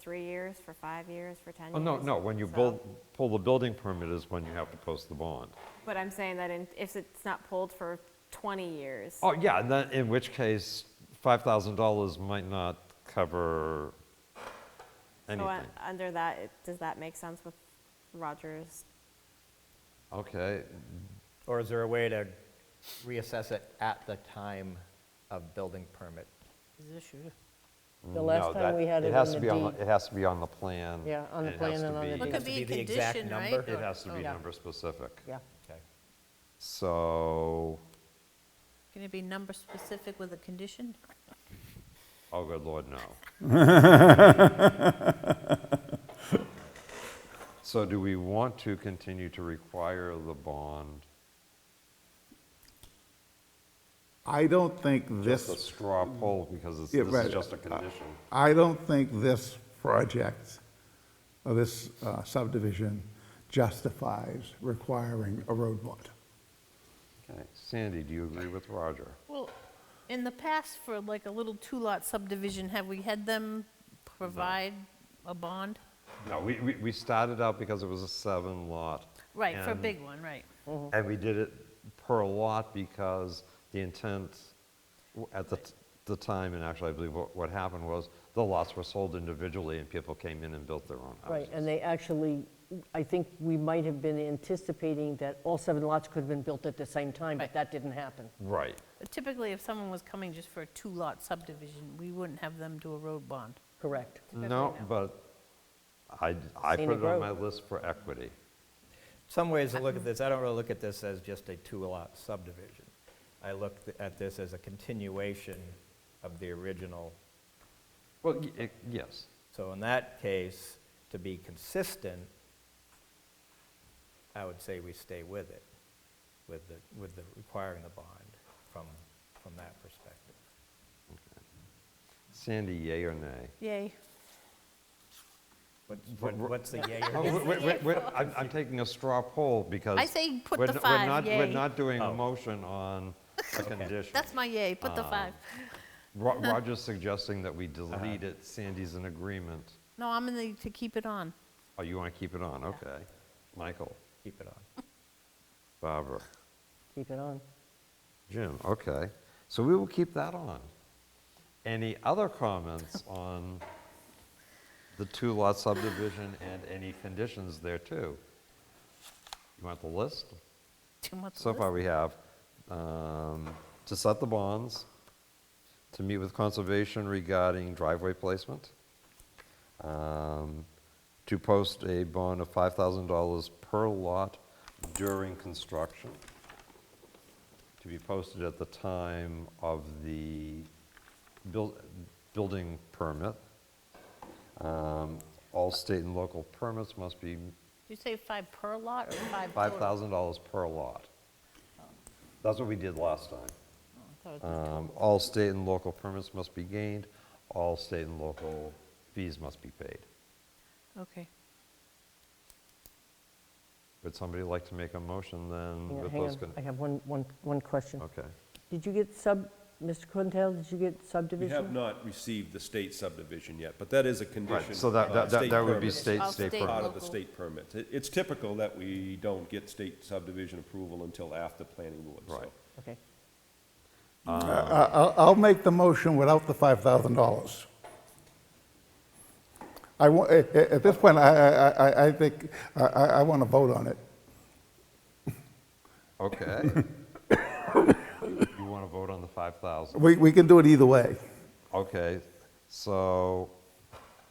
three years, for five years, for 10 years. Oh, no, no, when you So- build, pull the building permit is when you have to post the bond. But I'm saying that in- if it's not pulled for 20 years. Oh, yeah, and then, in which case, $5,000 might not cover So anything. un- under that, it- does that make sense with Rogers? Okay, Or is there a way to reassess it at the time of building permit? The last Mm, no, time that- we had it has on to the be on deed. It has to be on the plan. Yeah, on the it plan has and to on be- the deed. It It could has to be be a the exact condition, right? number. It has to be yeah. number specific. Yeah, Okay. So, Can it be number specific with a condition? oh, good lord, no. So do we want to continue to require the bond, I don't think just a this, straw poll, because it's- Yeah, this right. is just a condition? I don't think this project, or this uh, subdivision justifies requiring a road bond. Okay, Sandy, do you agree with Roger? Well, in the past, for like a little two-lot subdivision, have we had them provide a bond? No, we, we, we started out because it was a seven lot. Right, for a and- big one, right. And we did it per lot because the intent w- at the, t- the time, and actually I believe what, what happened was the lots were sold individually and people came in and built their own Oh, right, houses. and they actually, I think we might have been anticipating that all seven lots could have been built at the same time, but Right. that didn't happen. Right. But Typically, if someone was coming just for a two-lot subdivision, we wouldn't have them do a road bond. Correct. No, but I, I put Scenic it on road. my list for equity. Some ways to look Uh-huh. at this, I don't really look at this as just a two-lot subdivision. I look th- at this as a continuation of the original. Well, y- it- yes, So in that case, to be consistent, I would say we stay with it, with the, with the requiring the bond from, from that perspective. Sandy, yay or nay? Yay. What- what- What's the yay or Oh, nay? wait, wait, wait, wait, I'm, I'm taking a straw poll because. I say put we're the n- five, We're not, we're yay. not doing a Oh. motion on a condition. That's my yay, put Ah. the five. Ro- Roger's suggesting that we delete it, Sandy's in agreement. No, I'm in the, to keep it on. Oh, you want to keep it on, okay. Michael, Keep it on. Barbara, Keep it Mm, on. Jim, okay. So we will keep that on. Any other comments on the two-lot subdivision and any conditions there too? You want the list? Too much So far, we have um, to set the bonds, to meet with conservation regarding driveway placement, um, to post a bond of $5,000 per lot during construction, to be posted at the time of the buil- building permit. Um, All state and local permits must be Did you say five per lot or five total? $5,000 per lot. That's what we did last time. Oh, I thought it was- Um, All state and local permits must be gained, all state and local fees must be paid. Okay. Would somebody like to make a motion Hang then on, with hang those? on. con- I have one, one, one question. Okay. Did you get sub, Mr. Quintel, did you get We subdivision? have not received the state subdivision yet, but that is a condition. Right, so that, of that- that state that would be permits, state, All state state permit. Part of the Local. state permits. It- It's typical that we don't get state subdivision approval until after planning board, so. Right. Okay. I- I'll I'll make the motion without the $5,000. I, wa- at at- at this point, I- I, I- I- I think, I- I, I want to vote on it. Okay. You want to vote on the 5,000? We, we can do it either way. Okay, so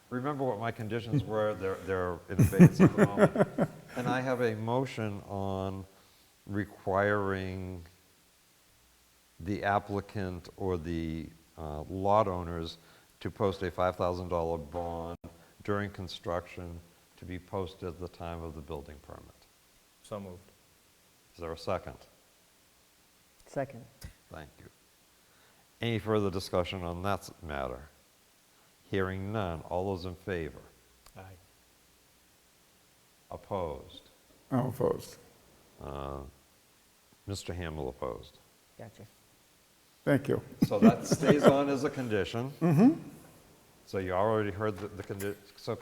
remember what my conditions were, they're, they're in abeyance at the moment. And I have a motion on requiring the applicant or the uh, lot owners to post a $5,000 bond during construction to be posted at the time of the building permit. So moved. Is there a second? Second. Thank you. Any further discussion on that s- matter? Hearing none, all those in favor? Aye. Opposed? I'm opposed. Mr. Hamel opposed. Gotcha. Thank you. So that stays on as a condition. So you already heard the, the condi- so